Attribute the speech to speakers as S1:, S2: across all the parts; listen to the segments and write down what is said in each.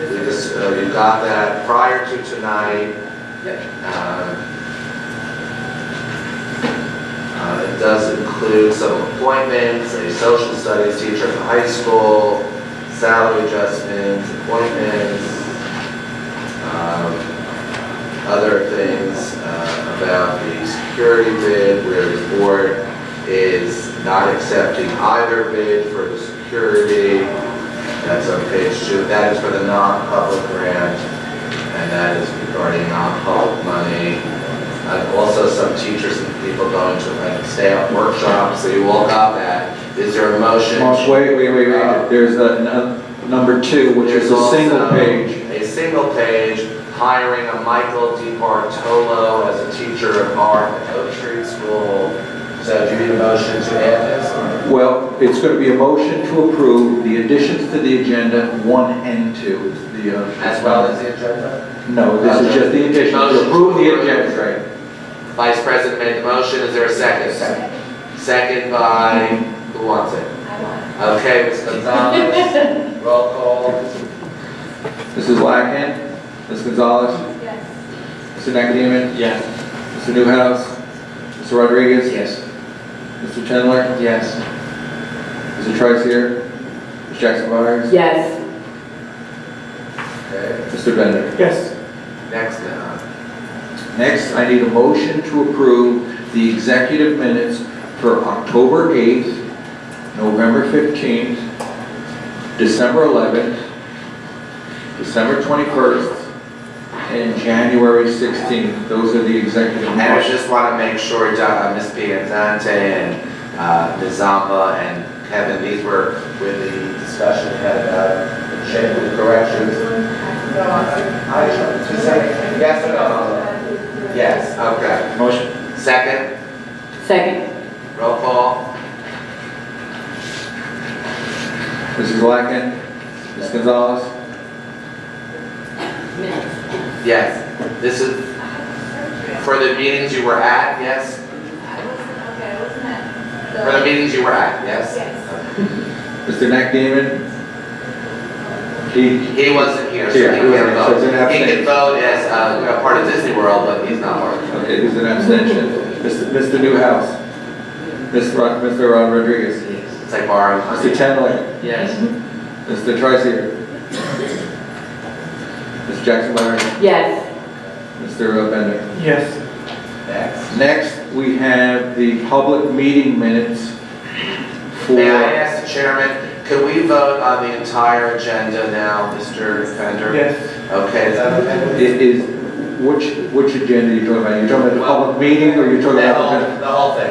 S1: about uh, that prior to tonight. Um, uh, It does include some appointments, a social studies teacher at the high school, salary adjustments, appointments, um, other things uh, about the security bid, where the board is not accepting either bid for the security. That's on page two. That is for the non-public grant, and that is regarding non-public money. Uh, Also, some teachers and people going to like stay-out workshops, so you all got that. Is there a motion?
S2: Well, Wait, wait, wait, wait, there's a nu- number two, which is a
S1: Uh, There's
S2: single
S1: also
S2: page.
S1: A single page, hiring a Michael DiBartolo as a teacher of art at Oak Street School. So do you need a motion to add this? or-
S2: Well, it's going to be a motion to approve the additions to the agenda, one and two. is the, uh,
S1: As well as the agenda?
S2: No, this is just the addition,
S1: Motion to
S2: to approve the
S1: approve.
S2: agenda.
S1: Vice President made the motion, is there a second? Second by, who wants it? Okay, Ms. Gonzalez, roll call.
S2: Mrs. Blackman, Ms. Gonzalez,
S3: Yes.
S2: Mr. Nakadimian,
S4: Yes.
S2: Mr. Newhouse, Mr. Rodriguez. Mr. Chandler,
S4: Yes.
S2: Mr. Trice Ms. Jackson Byers,
S3: Yes.
S1: Okay,
S2: Mr. Bender.
S4: Yes.
S1: next now.
S2: Next, I need a motion to approve the executive minutes for October 8th, November 15th, December 11th, December 21st, and January 16th. Those are the executive
S1: And I
S2: minutes.
S1: just want to make sure, uh, Ms. Piantante and uh, Ms. Zamba and Kevin, these were with the discussion we had about the change with corrections. I, two seconds, yes or no? Yes, okay.
S4: Motion?
S1: Second,
S3: Second.
S1: roll call.
S2: Mrs. Blackett, Ms. Gonzalez,
S3: Minutes.
S1: Yes, this is for the meetings you were at, yes? For the meetings you were at, yes?
S2: Mr. Nakdamian. He,
S1: He wasn't here, so he
S2: Yeah, he
S1: can't
S2: wasn't here, so
S1: vote.
S2: it's an
S1: He
S2: abstain.
S1: can vote as uh, a part of Disney World, but he's not part of it.
S2: okay, there's an abstention. Mr. Mr. Newhouse, Ms. Rod- Mr. Rodriguez,
S1: It's like borrowing
S2: Mr.
S1: money.
S2: Chandler,
S4: Yes.
S2: Mr. Trice. Mr. Jackson Byron,
S3: Yes.
S2: Mr. Bender.
S4: Yes.
S1: Next.
S2: Next, we have the public meeting minutes for...
S1: May I ask the chairman, could we vote on the entire agenda now, Mr. Fender?
S4: Yes.
S1: Okay, is that okay? with you?
S2: It is, which, which agenda are you talking about? You're talking about the public meeting or you're talking
S1: The
S2: about...
S1: whole, the whole thing.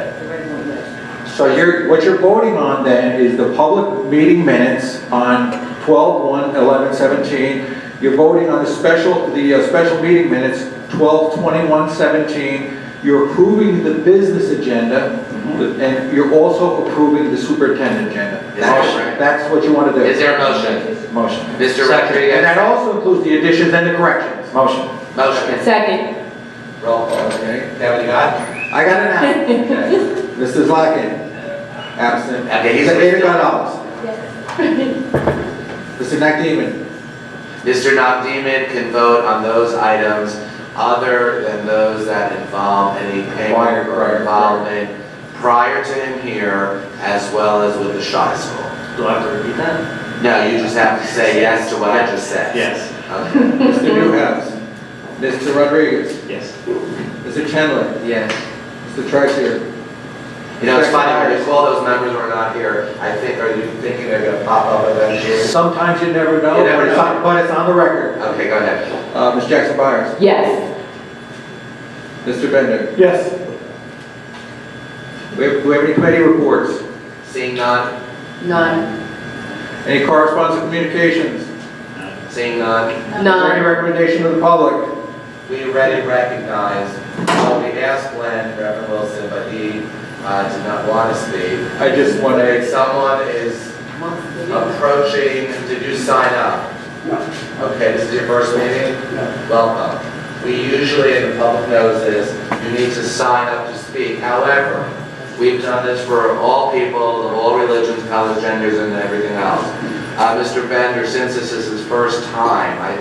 S2: the- So you're, what you're voting on then is the public meeting minutes on 12, 1, 11, 17. You're voting on the special, the uh, special meeting minutes, 12, 21, 17. You're approving the business agenda and you're also approving the superintendent agenda.
S1: Mm-hmm. Is that
S2: That's,
S1: right?
S2: that's what you want to do.
S1: Is there a motion?
S2: Motion.
S1: Mr.
S2: Second. And
S1: Rodriguez,
S2: that also includes the additions and the corrections. Motion.
S1: motion.
S3: Second.
S1: Roll call.
S2: Okay.
S1: Kevin, you got it?
S2: I got an aye. Mrs. Lockett, absent.
S1: Okay, he's-
S2: Mr. Ada Gonzalez. Mr. Nakdamian.
S1: Mr. Nakdimian can vote on those items other than those that involve any
S2: Prior,
S1: payment
S2: prior,
S1: or involvement prior to him here, as well as with the Shire School.
S4: Do I have to repeat that?
S1: No, you just have to say yes to what I just said.
S4: Yes.
S1: Okay.
S2: Mr. Newhouse. Mr. Rodriguez.
S4: Yes.
S2: Mr. Chandler.
S1: Yes.
S2: Mr. Trice.
S1: You know, it's funny, because all those members were not here, I think, are you thinking they're gonna pop up eventually?
S2: Sometimes you never know,
S1: You never
S2: but it's
S1: know.
S2: on, but it's on the record.
S1: Okay, go ahead.
S2: Uh, Ms. Jackson Byers.
S3: Yes.
S2: Mr. Bender.
S4: Yes.
S2: We have, do we have any committee reports?
S1: Seeing none,
S3: None.
S2: Any correspondence and communications? Is
S1: seeing none,
S2: there any
S3: None.
S2: recommendation to the public?
S1: we already recognize, well, we asked Glenn, Reverend Wilson, but he, uh, did not want to speak.
S2: I just want
S1: But
S2: to
S1: if someone is Oh, approaching, did you sign up? Okay, this is your first meeting? Welcome. We usually, in the public knows this, you need to sign up to speak. However, we've done this for all people of all religions, colors, genders, and everything else. Uh, Mr. Bender, since this is his first time, I